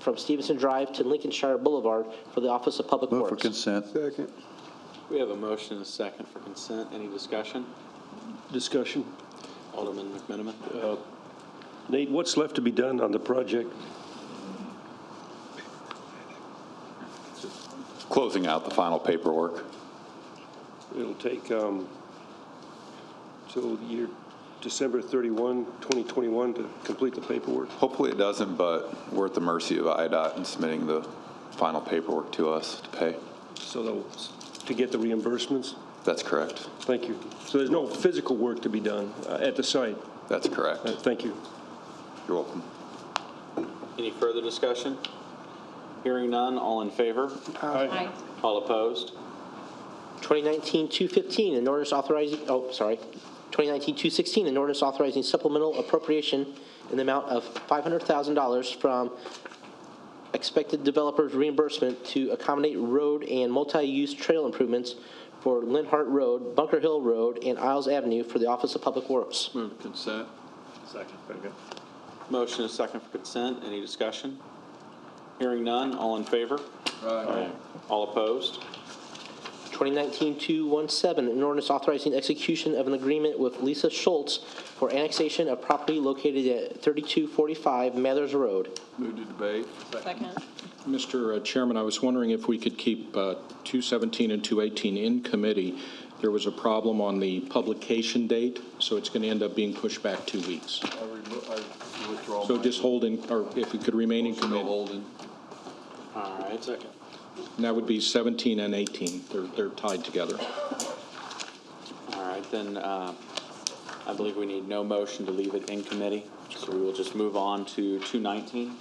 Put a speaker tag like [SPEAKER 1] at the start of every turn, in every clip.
[SPEAKER 1] from Stevenson Drive to Lincolnshire Boulevard for the Office of Public
[SPEAKER 2] Move for
[SPEAKER 1] Works.
[SPEAKER 2] consent.
[SPEAKER 3] Second.
[SPEAKER 4] We have a motion and a second for consent. Any discussion?
[SPEAKER 5] Discussion.
[SPEAKER 4] Alderman McMenamin?
[SPEAKER 5] Nate, what's left to be done on the project?
[SPEAKER 6] Closing out the final paperwork.
[SPEAKER 5] It'll take um, till the year December 31, 2021 to complete the paperwork.
[SPEAKER 6] Hopefully it doesn't, but we're at the mercy of IDOT in submitting the final paperwork to us to pay.
[SPEAKER 5] So those- to get the reimbursements?
[SPEAKER 6] That's correct.
[SPEAKER 5] Thank you. So there's no physical work to be done uh, at the site?
[SPEAKER 6] That's correct.
[SPEAKER 5] Uh, Thank you.
[SPEAKER 6] You're welcome.
[SPEAKER 4] Any further discussion? Hearing none, all in favor?
[SPEAKER 7] Aye.
[SPEAKER 4] All opposed?
[SPEAKER 1] 2019-215, an ordinance authorizing, oh, sorry, 2019-216, an ordinance authorizing supplemental appropriation in the amount of $500,000 from expected developers reimbursement to accommodate road and multi-use trail improvements for Linhart Road, Bunker Hill Road, and Isles Avenue for the Office of Public Works.
[SPEAKER 4] Move to consent. Second. Motion and a second for consent. Any discussion? Hearing none, all in favor? Aye. All opposed?
[SPEAKER 1] 2019-217, an ordinance authorizing execution of an agreement with Lisa Schultz for annexation of property located at 3245 Mathers Road.
[SPEAKER 7] Second.
[SPEAKER 8] Mr. uh, Chairman, I was wondering if we could keep uh, 217 and 218 in committee. There was a problem on the publication date, so it's going to end up being pushed back two weeks. So just hold in, or if it could remain in committee.
[SPEAKER 4] All right, second.
[SPEAKER 8] And that would be 17 and 18. They're they're tied together.
[SPEAKER 4] All right, then, uh, I believe we need no motion to leave it in committee, so we will just move on to 219.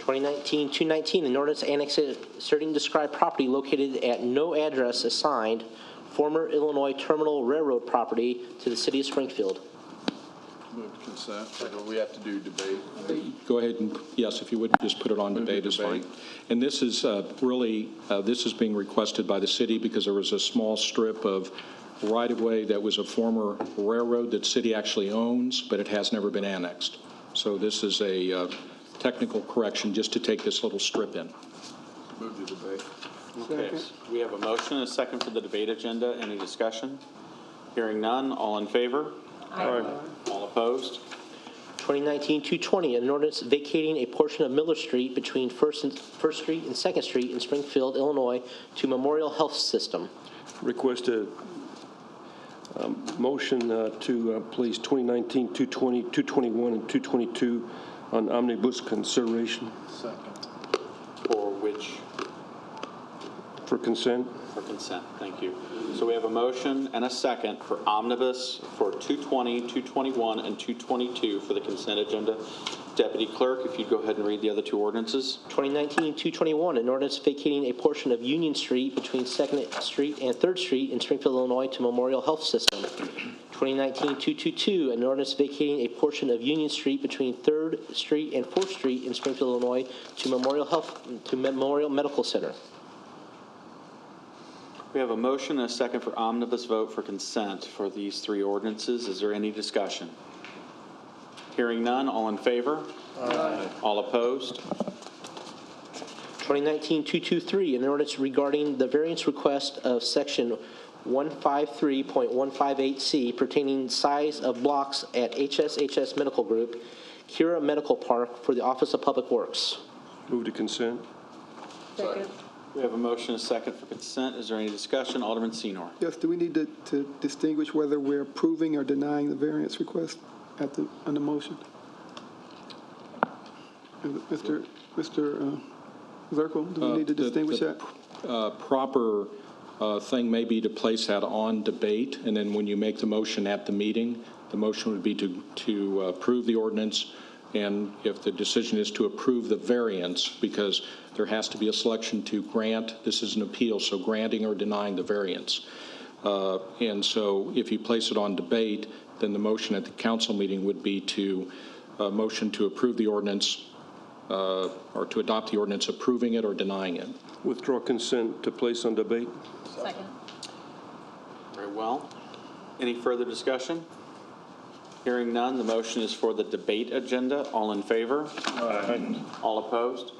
[SPEAKER 1] 2019-219, an ordinance annexing described property located at no address assigned, former Illinois Terminal Railroad property to the city of Springfield.
[SPEAKER 2] Move to consent. We have to do debate.
[SPEAKER 8] Go ahead and, yes, if you would, just put it on debate is fine. And this is uh, really, uh, this is being requested by the city because there was a small strip of right-of-way that was a former railroad that city actually owns, but it has never been annexed. So this is a uh, technical correction just to take this little strip in.
[SPEAKER 2] Move to debate.
[SPEAKER 4] Okay, we have a motion and a second for the debate agenda. Any discussion? Hearing none, all in favor? Aye. All opposed?
[SPEAKER 1] 2019-220, an ordinance vacating a portion of Miller Street between First and- First Street and Second Street in Springfield, Illinois, to Memorial Health System.
[SPEAKER 5] Request a um, motion uh, to uh, place 2019, 220, 221, and 222 on omnibus consideration
[SPEAKER 4] For which,
[SPEAKER 5] for consent.
[SPEAKER 4] for consent, thank you. So we have a motion and a second for omnibus for 220, 221, and 222 for the consent agenda. Deputy Clerk, if you'd go ahead and read the other two ordinances.
[SPEAKER 1] 2019-221, an ordinance vacating a portion of Union Street between Second Street and Third Street in Springfield, Illinois to Memorial Health System. 2019-222, an ordinance vacating a portion of Union Street between Third Street and Fourth Street in Springfield, Illinois to Memorial Health, to Memorial Medical Center.
[SPEAKER 4] We have a motion and a second for omnibus vote for consent for these three ordinances. Is there any discussion? Hearing none, all in favor? Aye. All opposed?
[SPEAKER 1] 2019-223, an ordinance regarding the variance request of Section 153.158C pertaining size of blocks at HSHS Medical Group, Kira Medical Park for the Office of Public Works.
[SPEAKER 5] Move to consent.
[SPEAKER 7] Second.
[SPEAKER 4] We have a motion and a second for consent. Is there any discussion? Alderman Senor.
[SPEAKER 3] Yes, do we need to, to distinguish whether we're approving or denying the variance request at the, on the motion? Mr. Mr. uh, Zirkle, do we need to
[SPEAKER 8] Uh, the-
[SPEAKER 3] distinguish
[SPEAKER 8] the
[SPEAKER 3] that?
[SPEAKER 8] uh, proper uh, thing may be to place that on debate, and then when you make the motion at the meeting, the motion would be to, to approve the ordinance, and if the decision is to approve the variance, because there has to be a selection to grant, this is an appeal, so granting or denying the variance. Uh, And so if you place it on debate, then the motion at the council meeting would be to, uh motion to approve the ordinance, uh, or to adopt the ordinance approving it or denying it.
[SPEAKER 5] Withdraw consent to place on debate.
[SPEAKER 7] Second.
[SPEAKER 4] Very well. Any further discussion? Hearing none, the motion is for the debate agenda. All in favor? Aye. All opposed?